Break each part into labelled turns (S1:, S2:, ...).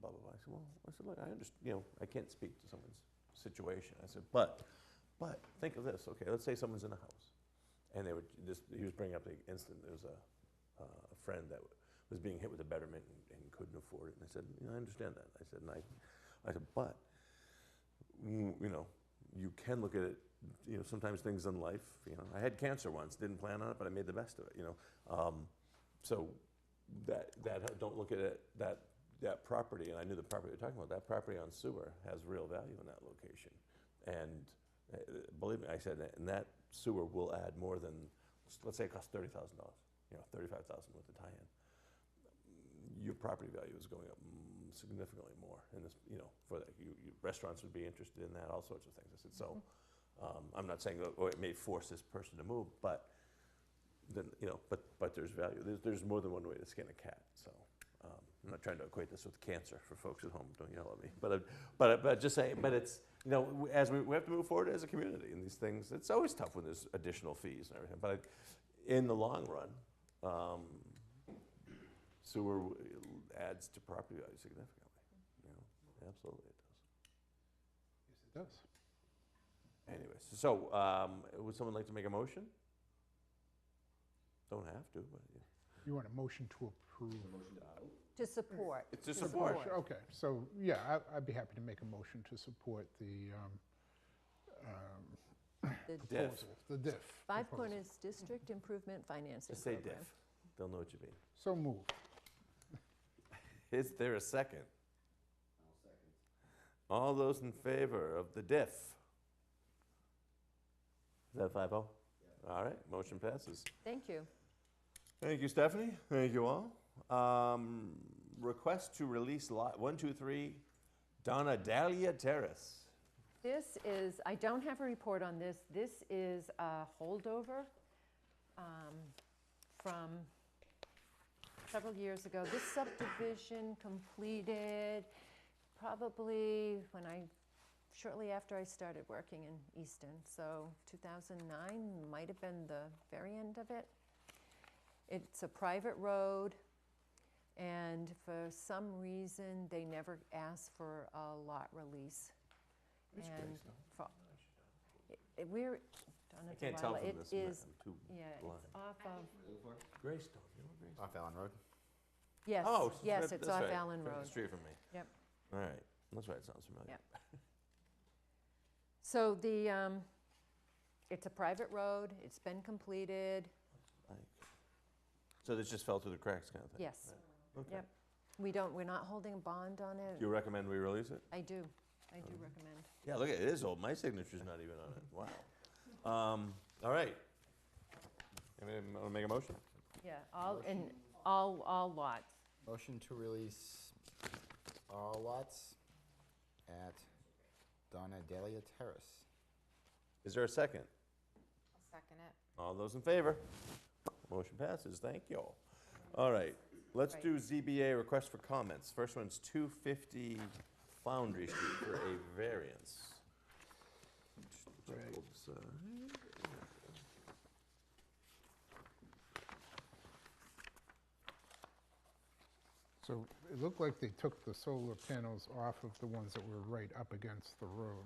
S1: well, I said, look, I understand, you know, I can't speak to someone's situation. I said, but, but, think of this, okay, let's say someone's in a house. And they were, this, he was bringing up the incident, there was a, uh, a friend that was being hit with a betterment and, and couldn't afford it. And I said, you know, I understand that. I said, and I, I said, but, mm, you know, you can look at it, you know, sometimes things in life, you know, I had cancer once, didn't plan on it, but I made the best of it, you know. Um, so that, that, don't look at it, that, that property, and I knew the property you're talking about, that property on sewer has real value in that location. And uh, believe me, I said, that, and that sewer will add more than, let's say it costs thirty thousand dollars, you know, thirty-five thousand with the tie-in. Your property value is going up mm, significantly more in this, you know, for that, you, you, restaurants would be interested in that, all sorts of things. I said, so, um, I'm not saying, oh, it may force this person to move, but then, you know, but, but there's value, there's, there's more than one way to skin a cat, so. Um, I'm not trying to equate this with cancer for folks at home. Don't yell at me. But, I- but, I- but just saying, but it's, you know, w- as we, we have to move forward as a community in these things. It's always tough when there's additional fees and everything. But in the long run, um, sewer w- adds to property value significantly. You know, absolutely it does.
S2: Yes, it does.
S1: Anyways, so um, would someone like to make a motion? Don't have to, but yeah.
S2: You want a motion to approve?
S3: To support.
S1: It's a support.
S2: Sure, Okay, so, yeah, I- I'd be happy to make a motion to support the um, um,
S3: The
S1: Mm. Diff.
S2: proposal, the diff.
S3: Five
S2: proposal.
S3: Corners District Improvement Financing
S1: Just say
S3: Program.
S1: diff. They'll know what you mean.
S2: So moved.
S1: Is there a 2nd second. All those in favor of the diff? Is that 5 0? All right, motion passes.
S3: Thank you.
S1: Thank you, Stephanie. Thank you all. Um, request to release lot 123 Donna Dahlia Terrace.
S3: This is, I don't have a report on this. This is a holdover um, from several years ago. This subdivision completed probably when I, shortly after I started working in Easton. So 2009 might have been the very end of it. It's a private road. And for some reason, they never asked for a lot release.
S1: It's
S3: And
S1: Grace, no?
S3: fo- It- it- We're, Donna
S1: I can't tell
S3: Delila,
S1: from this.
S3: it
S1: I'm not-
S3: is,
S1: I'm too
S3: yeah,
S1: blind.
S3: it's off of,
S1: Greystone. You know Greystone?
S4: Off Allen Road.
S3: yes,
S1: Oh, it's-
S3: yes,
S1: that-
S3: it's
S1: that's
S3: off
S1: right,
S3: Allen
S1: across the
S3: Road.
S1: street from me.
S3: Yep.
S1: All right. That's right. It sounds familiar.
S3: Yep. So the, um, it's a private road, it's been completed,
S1: Like- So this just fell through the cracks kind of thing?
S3: yes.
S1: Okay.
S3: Yep. We don't, we're not holding a bond on
S1: You
S3: it.
S1: recommend we release it?
S3: I do, I do recommend.
S1: Yeah, look, at it is old. My signature's not even on it. Wow. Um, all right. Anybody want to make a motion?
S3: Yeah, all, and all, all lots.
S4: Motion to release all lots at Donna Delia Terrace.
S1: Is there a second?
S3: Second it.
S1: All those in favor? Motion passes. Thank you all. All right. Let's do ZBA request for comments. First one's 250 Foundry Street for a variance. Oops, uh,
S2: So it looked like they took the solar panels off of the ones that were right up against the road.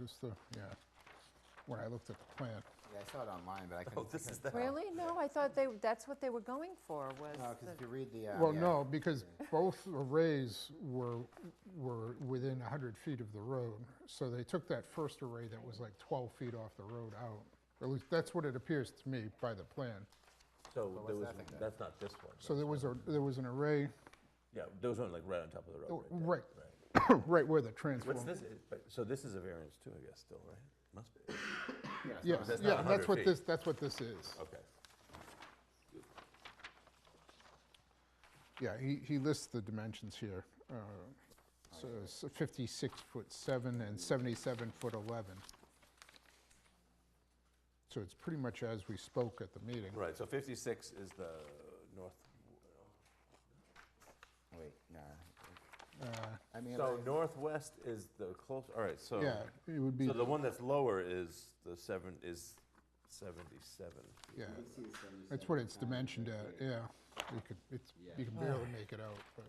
S2: Just the, yeah, when I looked at the plan.
S4: Yeah, I saw it online, but I couldn't.
S1: Oh, this is the.
S3: Really? No, I thought they, that's what they were going for, was
S4: No, because
S3: the-
S4: if you read the. uh,
S2: Well,
S4: yeah,
S2: no, because both arrays were, were within 100 feet of the road. So they took that first array that was like 12 feet off the road out. At least, that's what it appears to me by the plan.
S1: So there
S4: what's
S1: was,
S4: that thing then?
S1: that's not this one.
S2: So there was a, there was an array
S1: Yeah, there was one like right on top of the road. there.
S2: right, right where the transformer.
S1: What's this? but- So this is a variance too, I guess, still, right? Must be.
S4: yeah, so
S2: Yeah,
S1: that's not
S2: yeah, that's
S1: 100
S2: what
S1: feet.
S2: this, that's what this is.
S1: Okay.
S2: Yeah, he, he lists the dimensions here. uh, So it's 56 foot 7 and 77 foot 11. So it's pretty much as we spoke at the meeting.
S1: Right, so 56 is the north,
S4: Wait, no.
S2: Uh,
S4: I mean,
S1: so
S4: like-
S1: northwest is the close, all right, so.
S2: Yeah, it would be,
S1: So the one that's lower is the seven, is 77.
S2: yeah. That's what it's dimensioned at, yeah. You could, it's, you can barely make it out, but